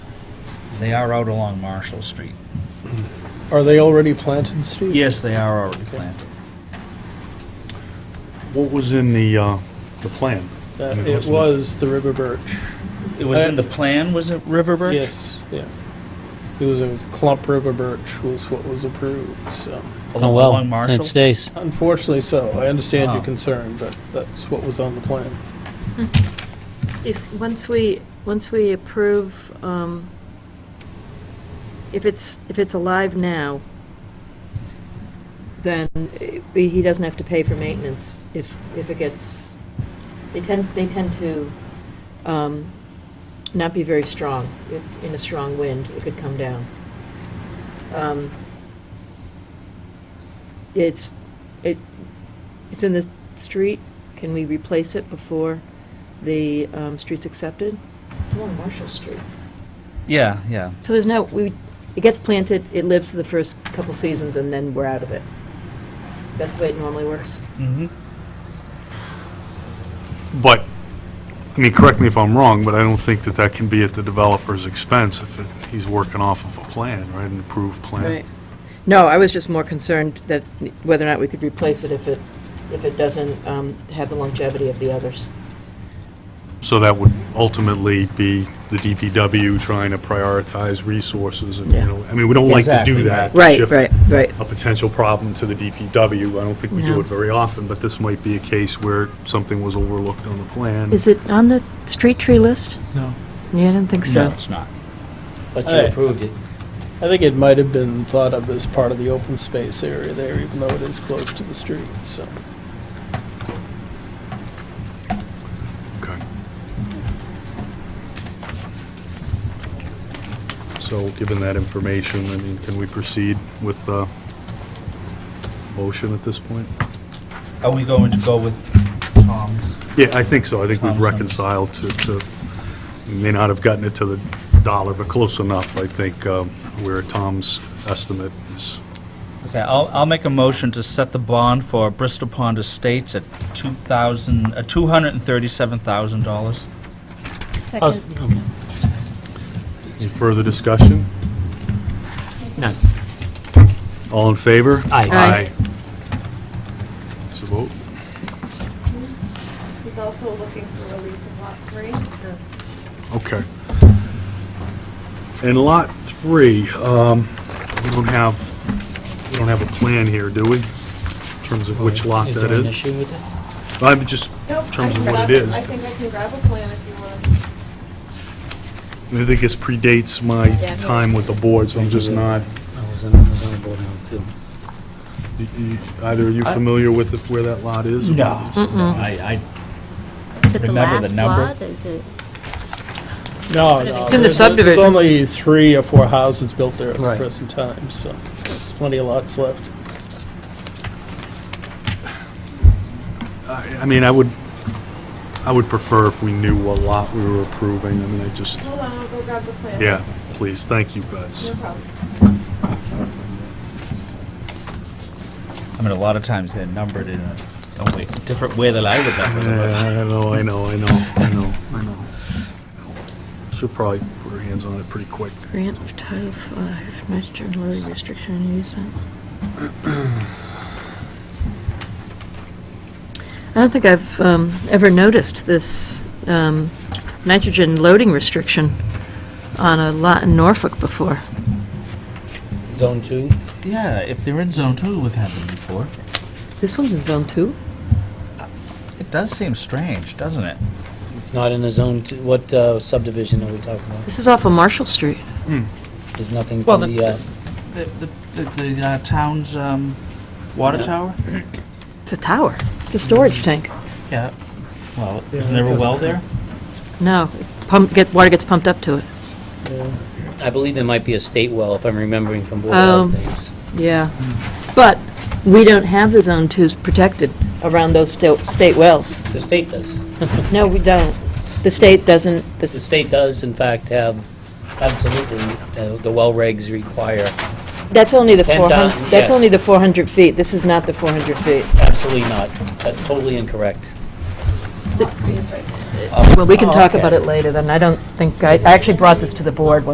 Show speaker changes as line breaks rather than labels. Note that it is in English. They are out along Marshall Street.
Are they already planted, Steve?
Yes, they are already planted.
What was in the, uh, the plan?
That- It was the river birch.
It was in the plan, was it River Birch?
Yes, yeah. It was a clump river birch was what was approved, so.
Oh,
Along
well,
along
and it
Marshall?
stays.
Unfortunately so. I understand your
Ah.
concern, but that's what was on the plan.
If, once we, once we approve, um, if it's, if it's alive now, then eh, he doesn't have to pay for maintenance if, if it gets, they tend, they tend to um, not be very strong. If In a strong wind, it could come down. Um, It's, it, it's in the street. Can we replace it before? the um, streets accepted. It's along Marshall Street.
Yeah, yeah.
So there's no, we, it gets planted, it lives for the first couple seasons, and then we're out of it. That's the way it normally works.
Mm-hmm.
But, I mean, correct me if I'm wrong, but I don't think that that can be at the developer's expense if it- he's working off of a plan, right, an approved plan.
No, I was just more concerned that whether or not we could replace it if it, if it doesn't um, have the longevity of the others.
So that would ultimately be the DPW trying to prioritize resources and, you
Yeah.
know, I mean, we don't like to
Exactly.
do that. to shift
right.
A potential problem to the DPW. I don't think we do
No.
it very often, but this might be a case where something was overlooked on the plan.
Is it on the street tree list?
No.
Yeah, I didn't think
No,
so.
it's not.
But
Hey.
you approved it.
I think it might have been thought of as part of the open space area there, even though it is close to the street, so.
Okay. So, given that information, I mean, can we proceed with uh motion at this point?
Are we going to go with Tom's?
Yeah, I think so. I think we've
Thompson.
reconciled to, to, we may not have gotten it to the dollar, but close enough, I think, um, where Tom's estimate is.
Okay, I'll, I'll make a motion to set the bond for Bristol Pond Estates at two thousand, uh, two hundred and thirty-seven thousand dollars.
How's-
Second.
okay.
Any further discussion?
None.
All in favor?
Aye.
Aye.
So vote.
He's also looking for release of lot three.
Okay. And lot three, um, we don't have, we don't have a plan here, do we? In terms of which lot
Is
that
there an
is?
issue with that?
I'm just,
Nope,
in
I
terms
can
of what
grab
it is.
I think I can grab a plan if you want.
I think this predates my
Yeah.
time with the board, so I'm just not,
I was on, I was on the board now, too.
y- y- either are you
I-
familiar with it- where that lot is? or-
I,
Is it the
Remember the
last
number?
lot? Is it?
No, no.
It's in the
there's- There's
subdivision.
only three or four houses built there at the
Right.
present time, so there's plenty of lots left.
I I mean, I would, I would prefer if we knew what lot we were approving, I mean, I just,
Hold on, I'll go grab the plan.
yeah, please, thank you, guys.
No problem.
I mean, a lot of times they're numbered in a, a way, different way than I would number them.
Yeah, I know, I know, I know, I know, I know. Should probably put our hands on it pretty quick.
Grant of Title Five, Master Lily Restriction and Easement. I don't think I've um, ever noticed this um, nitrogen loading restriction on a lot in Norfolk before.
Zone two?
Yeah, if they're in zone two, we've had them before.
This one's in Zone Two?
It does seem strange, doesn't it?
It's not in a zone two, what uh, subdivision are we talking about?
This is off of Marshall Street.
There's nothing
Well,
from
the-
the, uh,
The, the, the, the uh, town's, um, water tower?
It's a tower. It's a storage tank.
Yeah. Well, isn't there a well there?
No, pump, get, water gets pumped up to it.
I believe there might be a state well, if I'm remembering from board
Oh.
updates.
Yeah. But we don't have the Zone Twos protected around those sta- state wells.
The state does.
No, we don't. The state doesn't, the
The
s-
state does, in fact, have, absolutely, uh, the well regs require
that's only the
Ten
400,
times,
that's
uh, yes.
only the 400 feet. This is not the 400 feet.
Absolutely not. That's totally incorrect.
Please, right.
Well, we can
Oh,
talk
okay.
about it later, then. I don't think, I I actually brought this to the board when